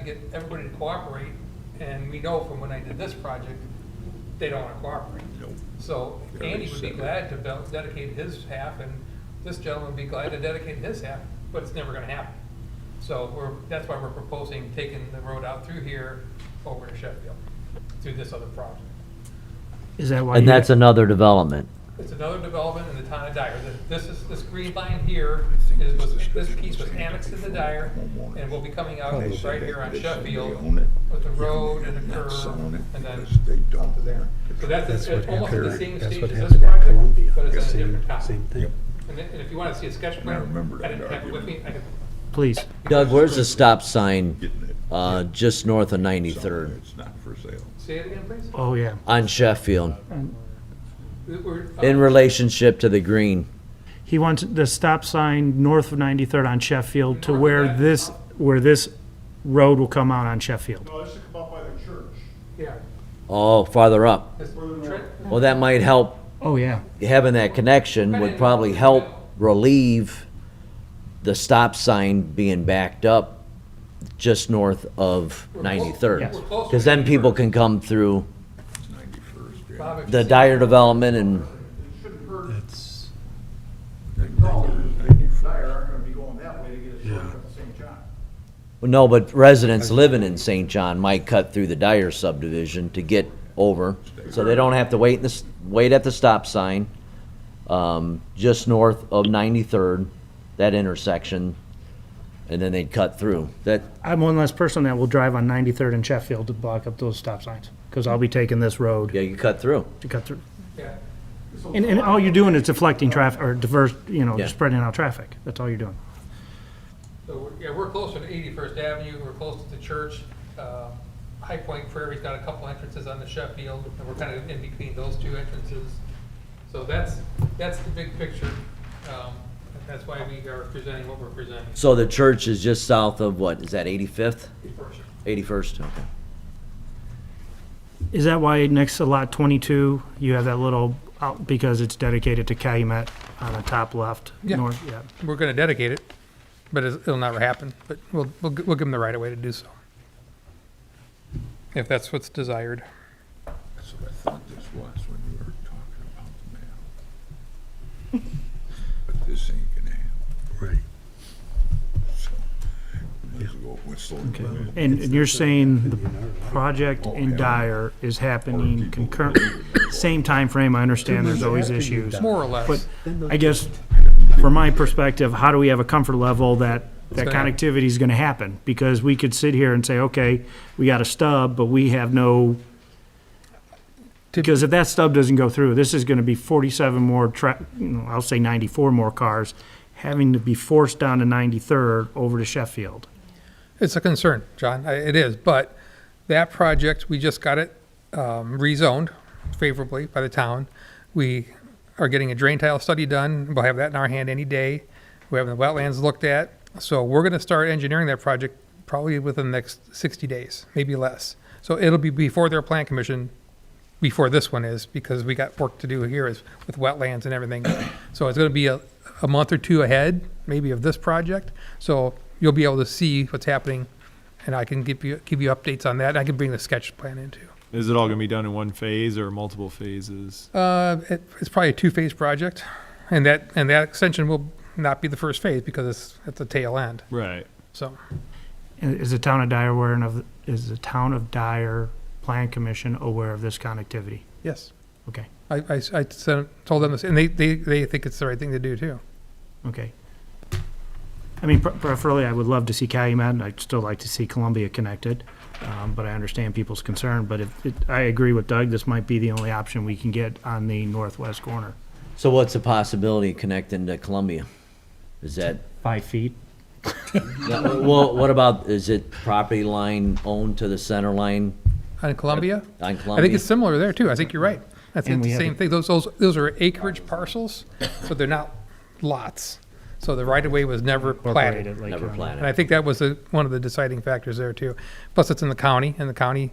get everybody to cooperate, and we know from when I did this project, they don't wanna cooperate. Nope. So Very Andy would be sad. glad to bel- dedicate his half, and this gentleman would be glad to dedicate his half, but it's never gonna happen. So we're, that's why we're proposing taking the road out through here over to Sheffield, through this other project. Is that why? And you- that's another development. It's another development in the town of Dyer. Th- This is, this green line here is, was- this piece was annexed to the Dyer, and will be coming out They said right they- here on they said they Sheffield own it. with the Yeah, road they're and the not selling curve, it and then, because They don't. to there. so that's, That's it's what almost at the same happened, that's stage what as this happened at project, Columbia, but it's the on a same, different topic. same Yep. thing. And then- and if you wanna see a sketch I plan, remember I that didn't have it with me, argument. I could, Please. Doug, where's the stop sign, Getting it. uh, just north of Somewhere 93rd It's not for sale. say it again, please? Oh, yeah. on Sheffield, We- we're, uh, in relationship to the green? He wants the stop sign north of 93rd on Sheffield to North of where that. this, where this road will come out on Sheffield. No, this should come up by the church. Yeah, Oh, farther up. this Trent, Well, that might help, Oh, yeah. having that connection would probably help relieve the stop sign being backed up just north of 93rd. We're close. Because then people can come through It's ninety-first. Bob, if you the see- Dyer development and, It shouldn't hurt, That's, no, Dyer aren't gonna be going that way to get a shortcut to St. John. no, but residents living in St. John might cut through the Dyer subdivision to get over. So they don't have to wait in this, wait at the stop sign, um, just north of 93rd, that intersection. And then they'd cut through. That, I'm one less person that will drive on 93rd and Sheffield to block up those stop signs, because I'll be taking this road yeah, you cut through. to cut through. Yeah. And, and all you're doing is deflecting traffic, or diverse, you know, Yeah. spreading out traffic. That's all you're doing. So, we're- yeah, we're closer to 81st Avenue, we're close to the church. Uh, High Point Prairie's got a couple entrances on the Sheffield, and we're kind of in between those two entrances. So that's, that's the big picture. Um, and That's why we are presenting what we're presenting. So the church is just south of what, is that 85th? First, 81st, okay. Is that why next to lot 22, you have that little, out because it's dedicated to Calumet on the top left? Yeah. north? Yeah. We're going to dedicate it, but it's- it'll never happen, but we'll, we'll gi- we'll give them the right of way to do so. If that's what's desired. That's what I thought this was when you were talking about the map. But this ain't gonna happen, right. so might as well whistle. and blow. And and you're saying the project in Dyer is happening concurrent, same time frame. I understand there's always issues. More or less. But I guess, from my perspective, how do we have a comfort level that, that gonna happen. connectivity is gonna happen? Because we could sit here and say, okay, we got a stub, but we have no, To- because if that stub doesn't go through, this is gonna be forty-seven more tra, you know, I'll say ninety-four more cars having to be forced down to ninety-third over to Sheffield. It's a concern, John, I- it is, but that project, we just got it um, rezoned favorably by the town. We are getting a drain tile study done, we'll have that in our hand any day. We're having the wetlands looked at, so we're gonna start engineering that project probably within the next sixty days, maybe less. So it'll be before their plan commission, before this one is, because we got work to do here is with wetlands and everything. So it's gonna be a, a month or two ahead, maybe of this project, so you'll be able to see what's happening, and I can give you, give you updates on that, and I can bring the sketch plan into. Is it all going to be done in one phase or multiple phases? Uh, it, it's probably a two-phase project, and that, and that extension will not be the first phase, because it's at the tail end, Right. so. Is the town of Dyer aware of, is the town of Dyer Plan Commission aware of this connectivity? Yes. Okay. I, I, I sent- told them this, and they, they, they think it's the right thing to do, too. Okay. I mean, pre- preferably, I would love to see Calumet, and I'd still like to see Columbia connected, um, but I understand people's concern, but if, it- I agree with Doug, this might be the only option we can get on the northwest corner. So what's the possibility of connecting to Columbia? Is that, Five feet? well, what about, is it property line owned to the center line On Columbia, on I think Columbia? it's similar there, too, I think you're right. I think And we the have same a- thing, those, those, those are acreage parcels, so they're not lots. So the right-of-way was never platted. Incorporated, like, Never um, planted. And I think that was the, one of the deciding factors there too. Plus, it's in the county, and the county,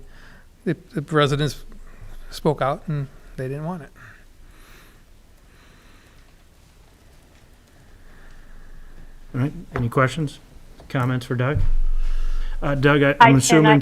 the the residents spoke out and they didn't want it. All right, any questions, comments for Doug? Uh, Doug, I- I I'm cannot assuming